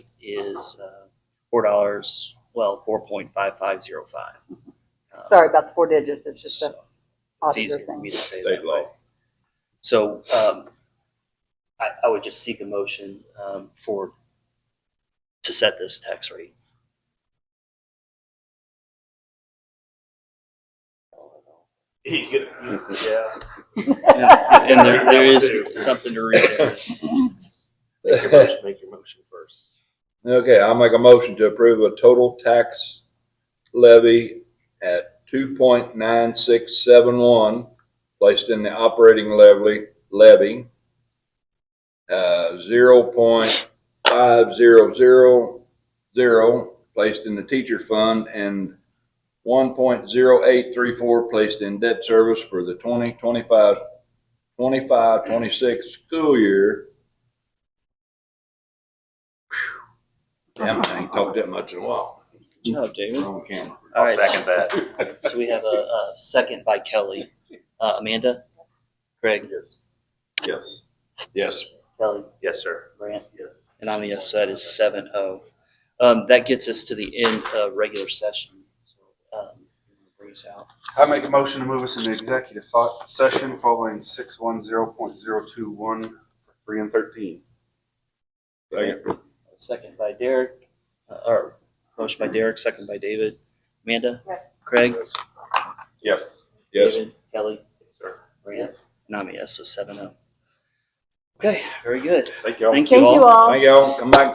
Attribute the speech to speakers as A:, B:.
A: is uh, four dollars, well, four point five five zero five. Um,
B: Sorry about the four digits, it's just a
A: It's
B: auditor
A: easier for
B: thing.
A: me to say
C: State
A: that way.
C: law.
A: So um, I, I would just seek a motion um, for, to set this tax rate.
D: You get, yeah.
A: And there, there is something to read there.
D: Make your motion, make your motion first.
C: Okay, I'll make a motion to approve a total tax levy at two point nine six seven one, placed in the operating levy, levy. Uh, zero point five zero zero zero, placed in the teacher fund, and one point zero eight three four, placed in debt service for the twenty twenty-five, twenty-five, twenty-six school year. Damn, I ain't talked that much in a while.
A: Good job, David.
C: Wrong camera.
A: All right, so-
D: Second that.
A: So we have a, a second by Kelly. Uh, Amanda? Greg?
D: Yes.
C: Yes.
A: Kelly?
D: Yes, sir.
A: Grant?
D: Yes.
A: And I'm a yes, so that is seven oh. Um, that gets us to the end of regular session. Um, Bring us out.
E: I make a motion to move us into executive fo- session following six one zero point zero two one, three and thirteen.
C: Second.
A: Second by Derek, uh, or motion by Derek, second by David. Amanda?
B: Yes.
A: Craig?
E: Yes.
C: Yes.
A: David, Kelly?
D: Sir.
A: Grant? And I'm a yes, so seven oh. Okay, very good.
D: Thank you all.
A: Thank you
B: Thank you
A: all.
B: all.
C: Thank y'all. Come back